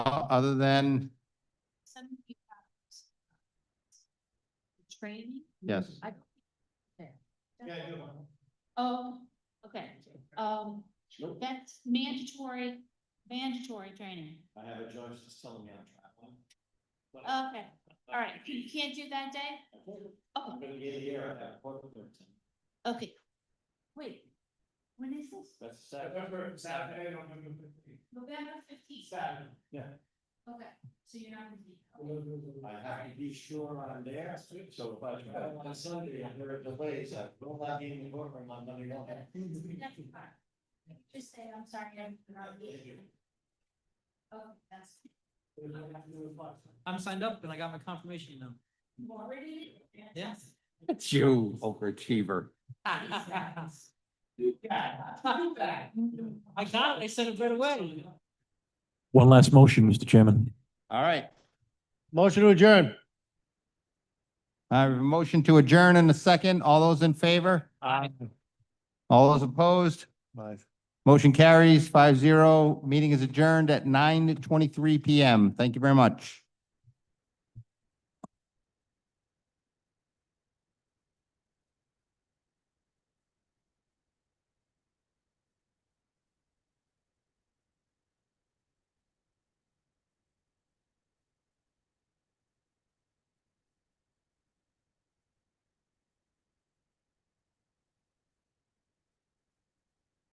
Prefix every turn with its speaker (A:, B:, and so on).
A: other than,
B: some of you have Training?
A: Yes.
B: I don't think there. Oh, okay, um, that's mandatory, mandatory training.
C: I have a judge that's telling me I'm traveling. But
B: Okay, all right, you can't do that day?
C: I told him, I'm
B: Okay,
C: gonna be here at that quarter to ten.
B: okay. Wait, when is this?
C: That's
D: November,
C: Saturday.
D: Saturday, November fifteenth.
B: November fifteenth.
D: Saturday. Yeah.
B: Okay, so you're not gonna be. okay.
C: I have to be sure I'm there, so if I travel on Sunday and there are delays, I will not be in the courtroom on Monday morning.
B: That's fine. Just say, I'm sorry, I'm not here. Okay, that's.
E: I'm signed up and I got my confirmation now.
B: You already did it?
E: Yes.
A: it's you, overachiever.
E: I got it. I said it right away.
D: One last motion, Mr. Chairman.
A: All right. Motion to adjourn. I have a motion to adjourn in a second. All those in favor?
E: Aye.
A: All those opposed? Motion carries five zero. Meeting is adjourned at nine twenty-three PM. Thank you very much.